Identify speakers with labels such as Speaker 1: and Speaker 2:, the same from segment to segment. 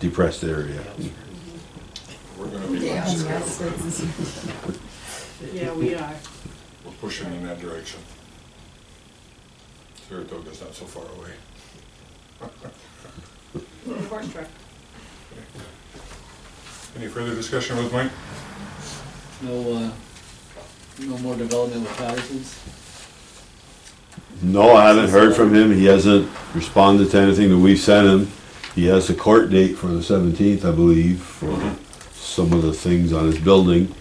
Speaker 1: depressed area.
Speaker 2: We're gonna be
Speaker 3: Yeah.
Speaker 2: last,
Speaker 3: Yeah, we are.
Speaker 2: we're pushing in that direction. Saratoga's not so far away.
Speaker 3: Horse truck.
Speaker 2: Any further discussion with Mike?
Speaker 4: No, uh, no more development with Patterson's?
Speaker 1: No, I haven't heard from him. He hasn't responded to anything that we've sent him. He has a court date for the seventeenth, I believe, for some of the things on his building.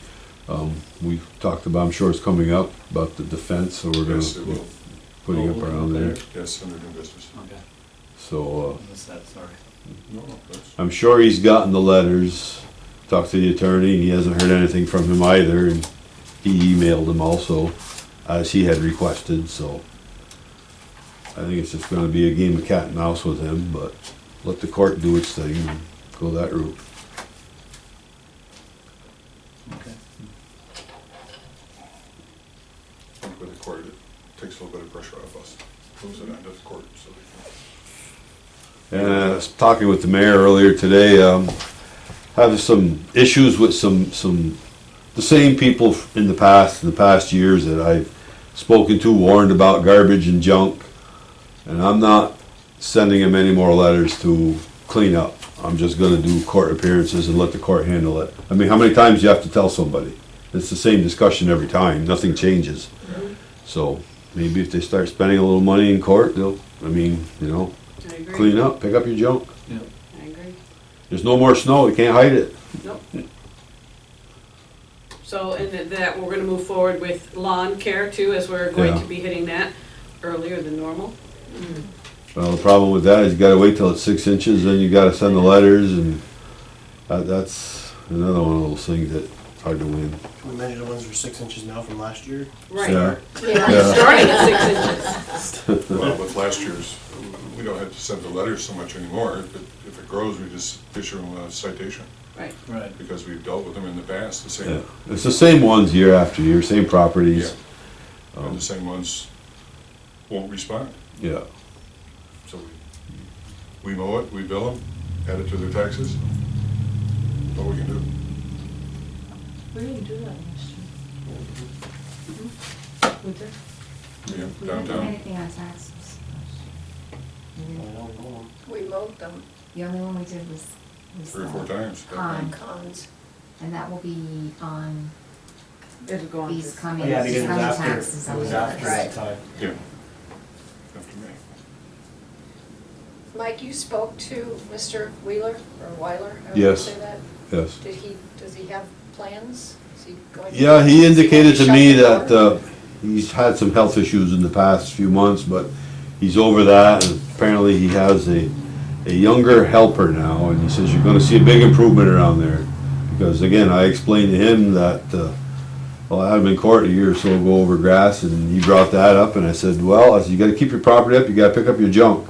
Speaker 1: Um, we've talked about, I'm sure it's coming up, about the defense, so we're
Speaker 2: Yes, it
Speaker 1: gonna be
Speaker 2: will. Oh,
Speaker 1: putting up around there.
Speaker 2: Yes, under new business. Um,
Speaker 4: Okay,
Speaker 1: So,
Speaker 4: I missed that, sorry.
Speaker 2: No, no, that's,
Speaker 1: uh, I'm sure he's gotten the letters, talked to the attorney, and he hasn't heard anything from him either, and he emailed him also, as he had requested, so. I think it's just gonna be a game of cat and mouse with him, but let the court do its thing and go that route.
Speaker 4: Okay.
Speaker 2: I think with the court, it takes a little bit of pressure off us. Moves it onto the court, so they
Speaker 1: And I was talking with the mayor earlier today, um, have some issues with some, some, the same people in the past, in the past years that I've spoken to, warned about garbage and junk. And I'm not sending them any more letters to clean up. I'm just gonna do court appearances and let the court handle it. I mean, how many times do you have to tell somebody? It's the same discussion every time, nothing changes. So, maybe if they start spending a little money in court, they'll, I mean, you know,
Speaker 3: I agree.
Speaker 1: clean up, pick up your junk.
Speaker 4: Yeah,
Speaker 3: I agree.
Speaker 1: There's no more snow, you can't hide it.
Speaker 3: Nope. So, and that- that, we're gonna move forward with lawn care too, as we're going
Speaker 1: Yeah.
Speaker 3: to be hitting that earlier than normal.
Speaker 1: Well, the problem with that is you gotta wait till it's six inches, then you gotta send the letters and that, that's another one of those things that hard to win.
Speaker 5: Many of the ones were six inches now from last year.
Speaker 1: Yeah.
Speaker 3: Right,
Speaker 1: Yeah.
Speaker 3: starting at six inches.
Speaker 2: can- Well, with last year's, we don't have to send the letters so much anymore. If it- If it grows, we just issue them a citation,
Speaker 3: Right,
Speaker 4: right.
Speaker 2: because we've dealt with them in the past, the
Speaker 1: Yeah.
Speaker 2: same,
Speaker 1: It's the same ones year after year, same properties.
Speaker 2: and the same ones won't respond.
Speaker 1: Yeah,
Speaker 2: So we, we mow it, we bill them, add it to their taxes. All we can do.
Speaker 6: We didn't do that last year. We did?
Speaker 2: Yeah,
Speaker 6: We didn't do
Speaker 2: downtown.
Speaker 6: anything on taxes.
Speaker 5: I don't know.
Speaker 7: We mowed them
Speaker 6: The only one we did was. was
Speaker 2: Three or four
Speaker 6: the
Speaker 2: times.
Speaker 6: Con,
Speaker 7: on cons.
Speaker 6: and that will be on
Speaker 3: it'll go on.
Speaker 6: these coming,
Speaker 5: Oh, Yeah, because
Speaker 6: these
Speaker 5: it
Speaker 6: coming
Speaker 5: was
Speaker 6: taxes.
Speaker 5: after,
Speaker 6: on
Speaker 5: it was
Speaker 6: the
Speaker 5: after
Speaker 6: others.
Speaker 5: the time.
Speaker 2: Yeah. After me.
Speaker 7: Mike, you spoke to Mr. Wheeler or Weiler? however you
Speaker 1: Yes.
Speaker 7: say that.
Speaker 1: yes.
Speaker 7: Did he, does he have plans? Is he going? to-
Speaker 1: Yeah, he
Speaker 7: is going to
Speaker 1: indicated to
Speaker 7: shut
Speaker 1: me
Speaker 7: the
Speaker 1: that,
Speaker 7: door?
Speaker 1: uh, he's had some health issues in the past few months, but he's over that, and apparently he has a, a younger helper now, and he says you're gonna see a big improvement around there. Because again, I explained to him that, uh, well, I had him in court a year or so ago over grass, and he brought that up, and I said, well, I said, you gotta keep your property up, you gotta pick up your junk.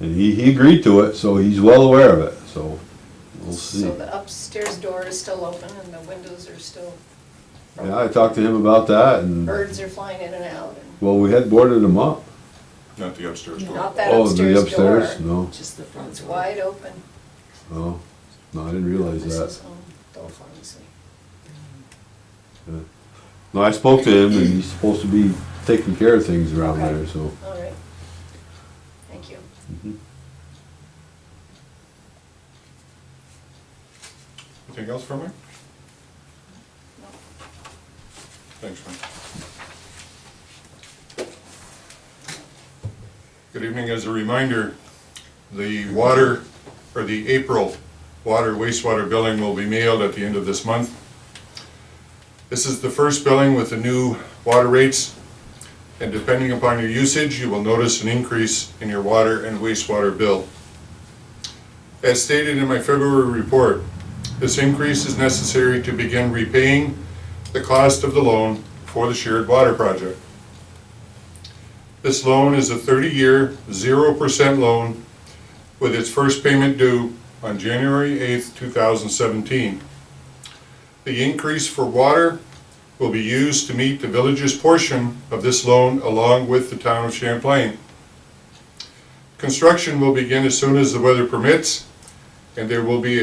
Speaker 1: And he, he agreed to it, so he's well aware of it, so, we'll see.
Speaker 7: So the upstairs door is still open and the windows are still,
Speaker 1: Yeah, I talked to him about that, and,
Speaker 7: birds are flying in and out and
Speaker 1: well, we had boarded him up.
Speaker 2: Not the upstairs door.
Speaker 7: not that
Speaker 1: Oh, the
Speaker 7: upstairs door.
Speaker 1: upstairs? No,
Speaker 3: Just the front
Speaker 7: It's
Speaker 3: door.
Speaker 7: wide open.
Speaker 1: no, no, I didn't realize
Speaker 7: This
Speaker 1: that.
Speaker 7: is, um, Dole Pharmacy.
Speaker 1: No, I spoke to him and he's supposed to be taking care of things around
Speaker 7: Okay. Mm-hmm.
Speaker 1: there, so.
Speaker 7: All right. Thank you.
Speaker 2: Anything else from me?
Speaker 7: No.
Speaker 2: Thanks, Mike. Good evening. As a reminder, the water, or the April water wastewater billing will be mailed at the end of this month. This is the first billing with the new water rates. And depending upon your usage, you will notice an increase in your water and wastewater bill. As stated in my February report, this increase is necessary to begin repaying the cost of the loan for the shared water project. This loan is a 30-year, 0% loan with its first payment due on January 8th, 2017. The increase for water will be used to meet the village's portion of this loan along with the town of Champlain. Construction will begin as soon as the weather permits And there will be